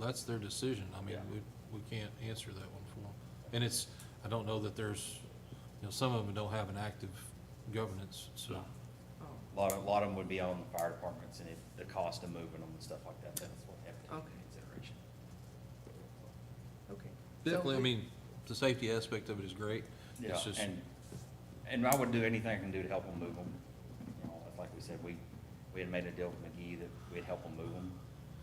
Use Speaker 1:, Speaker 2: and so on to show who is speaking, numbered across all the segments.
Speaker 1: that's their decision. I mean,
Speaker 2: Yeah.
Speaker 1: we, we can't answer that one for them. And it's, I don't know that there's, you know, some of them don't have an active governance, so.
Speaker 2: No. A lot of, a lot of them would be on the fire departments and it, the cost of moving them and stuff like that, that's what have to take
Speaker 3: Okay.
Speaker 2: into consideration.
Speaker 3: Okay.
Speaker 1: Definitely, I mean, the safety aspect of it is great.
Speaker 2: Yeah,
Speaker 1: It's just,
Speaker 2: and, and I would do anything I can do to help them move them. You know, it's like we said, we, we had made a deal with McGee that we'd help them move them.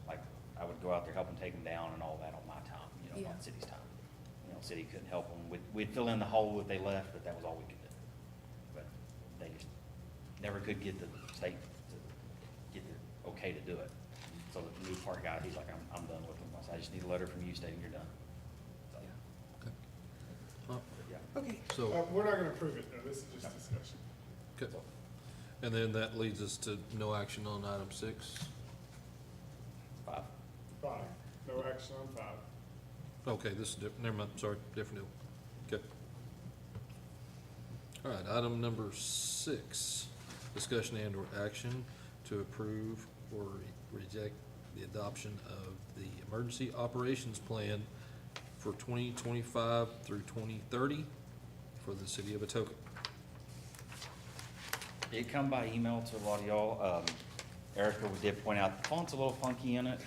Speaker 2: Like, I would go out there, help them take them down and all that on my time, you know,
Speaker 3: Yeah.
Speaker 2: not city's time. You know, city couldn't help them. We'd, we'd fill in the hole that they left, but that was all we could do. But they just never could get the state to get it okay to do it. So the new park guy, he's like, I'm, I'm done with them. I said, I just need a letter from you stating you're done. So,
Speaker 1: Okay. Well,
Speaker 2: yeah.
Speaker 3: Okay,
Speaker 4: Uh,
Speaker 1: So,
Speaker 4: we're not gonna approve it, no, this is just discussion.
Speaker 1: okay. and then that leads us to no action on item six.
Speaker 2: Five.
Speaker 4: Five, no action on five.
Speaker 1: Okay, this is, diff- never mind, sorry, different deal. Okay. All right, item number six, discussion and/or action to approve or re- reject the adoption of the emergency operations plan for twenty twenty-five through twenty thirty for the city of Atoka.
Speaker 2: It come by email to a lot of y'all. Um, Erica did point out the font's a little funky in it.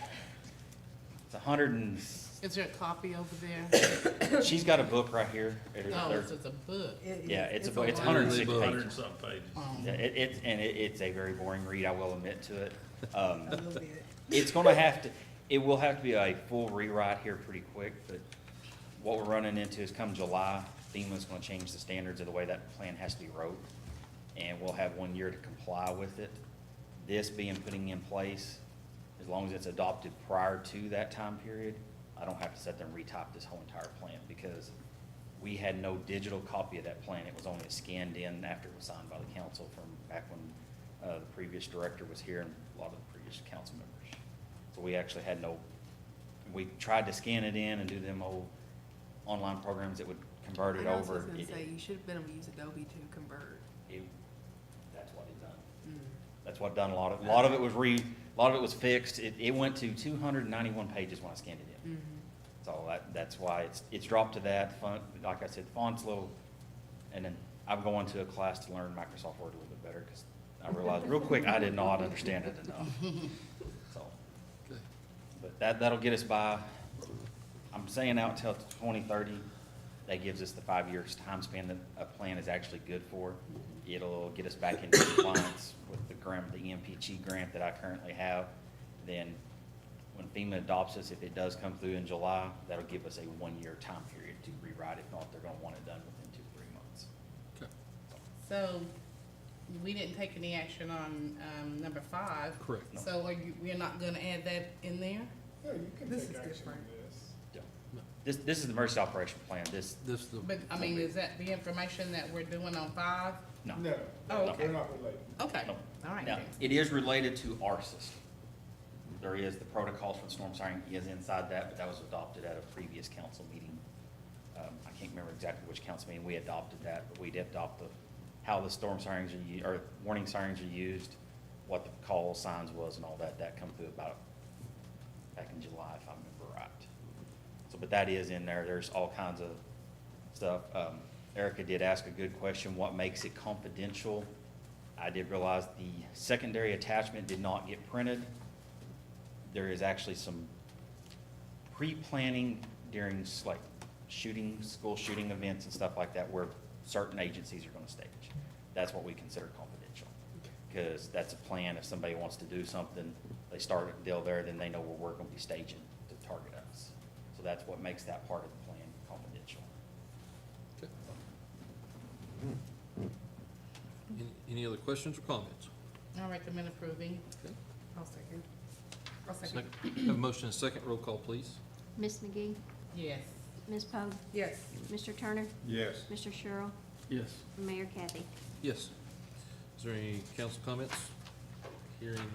Speaker 2: It's a hundred and,
Speaker 5: Is there a copy over there?
Speaker 2: she's got a book right here. It is-
Speaker 5: No,
Speaker 2: there-
Speaker 5: Oh, it's just a book.
Speaker 3: it-
Speaker 2: Yeah, it's a book,
Speaker 3: lot.
Speaker 2: it's hundred and six
Speaker 1: Book.
Speaker 6: Hundred and
Speaker 2: pages.
Speaker 6: something pages.
Speaker 2: Yeah, It, it's, and it, it's a very boring read, I will admit to it. Um,
Speaker 3: A little bit.
Speaker 2: it's gonna have to, it will have to be a full rewrite here pretty quick, but what we're running into is come July, FEMA's gonna change the standards of the way that plan has to be wrote, and we'll have one year to comply with it. This being putting in place, as long as it's adopted prior to that time period, I don't have to set them retype this whole entire plan, because we had no digital copy of that plan, it was only scanned in after it was signed by the council from back when, uh, the previous director was here and a lot of the previous council members. So we actually had no, we tried to scan it in and do them old online programs that would convert it
Speaker 3: I was
Speaker 2: over.
Speaker 3: just gonna
Speaker 2: It-
Speaker 3: say, you should have been able to use Adobe to convert.
Speaker 2: it- That's what it done. That's what done a lot of, a lot of it was re, a lot of it was fixed. It, it went to two hundred and ninety-one pages when I scanned it
Speaker 3: Mm.
Speaker 5: Mm-hmm.
Speaker 2: in. So that, that's why it's, it's dropped to that font, like I said, font's little, and then I'm going to a class to learn Microsoft Word a little bit better, because I realized real quick, I did not understand it enough. So,
Speaker 1: Okay.
Speaker 2: but that, that'll get us by, I'm saying out till twenty thirty, that gives us the five years time span that a plan is actually good for. It'll get us back into compliance with the grant, the E EMPG grant that I currently have. Then, when FEMA adopts us, if it does come through in July, that'll give us a one-year time period to rewrite. If not, they're gonna want it done within two, three months.
Speaker 1: Okay,
Speaker 5: So, we didn't take any action on, um, number five.
Speaker 1: Correct.
Speaker 5: So are you, we're not gonna add that in there?
Speaker 4: No, you can
Speaker 3: This
Speaker 4: take
Speaker 3: is
Speaker 4: action on
Speaker 3: different.
Speaker 4: this.
Speaker 2: Yeah. This, this is the emergency operation plan. This,
Speaker 1: This, the,
Speaker 5: But, I mean, is that the information that we're doing on five?
Speaker 2: no.
Speaker 4: No,
Speaker 5: Oh,
Speaker 4: no,
Speaker 5: okay.
Speaker 4: they're not related.
Speaker 5: Okay,
Speaker 2: No.
Speaker 5: all right
Speaker 2: Now,
Speaker 5: then.
Speaker 2: it is related to our system. There is, the protocols for storm siren is inside that, but that was adopted at a previous council meeting. Um, I can't remember exactly which council meeting we adopted that, but we did adopt the, how the storm sirens are, u- or warning sirens are used, what the call signs was and all that, that come through about, back in July, if I remember right. So, but that is in there, there's all kinds of stuff. Um, Erica did ask a good question, what makes it confidential? I did realize the secondary attachment did not get printed. There is actually some pre-planning during s- like shooting, school shooting events and stuff like that where certain agencies are gonna stage. That's what we consider confidential. Cause that's a plan, if somebody wants to do something, they start a deal there, then they know where we're gonna be staging to target us. So that's what makes that part of the plan confidential.
Speaker 1: okay. Any- Any other questions or comments?
Speaker 5: I recommend approving.
Speaker 1: Okay.
Speaker 3: I'll second. I'll second.
Speaker 1: Second, have a motion and a second, roll call, please.
Speaker 7: Ms. McGee,
Speaker 5: Yes.
Speaker 7: Ms. Poe,
Speaker 3: Yes,
Speaker 7: Mr. Turner,
Speaker 4: Yes.
Speaker 7: Mr. Sherrill,
Speaker 6: Yes.
Speaker 7: and Mayor Kathy.
Speaker 1: Yes. Is there any council comments? Hearing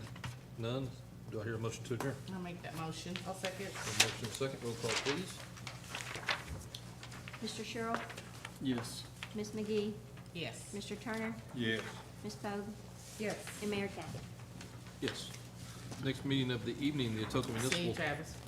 Speaker 1: none, do I hear a motion to adjourn?
Speaker 5: I'll make that motion. I'll second.
Speaker 1: A motion and a second, roll call, please.
Speaker 7: Mr. Sherrill,
Speaker 6: Yes.
Speaker 7: Ms. McGee,
Speaker 5: Yes.
Speaker 7: Mr. Turner,
Speaker 4: Yes.
Speaker 7: Ms. Poe,
Speaker 3: yes.
Speaker 7: and Mayor Kathy.
Speaker 1: Yes. Next meeting of the evening, the Atoka
Speaker 5: See you,
Speaker 1: Municipal
Speaker 5: Travis.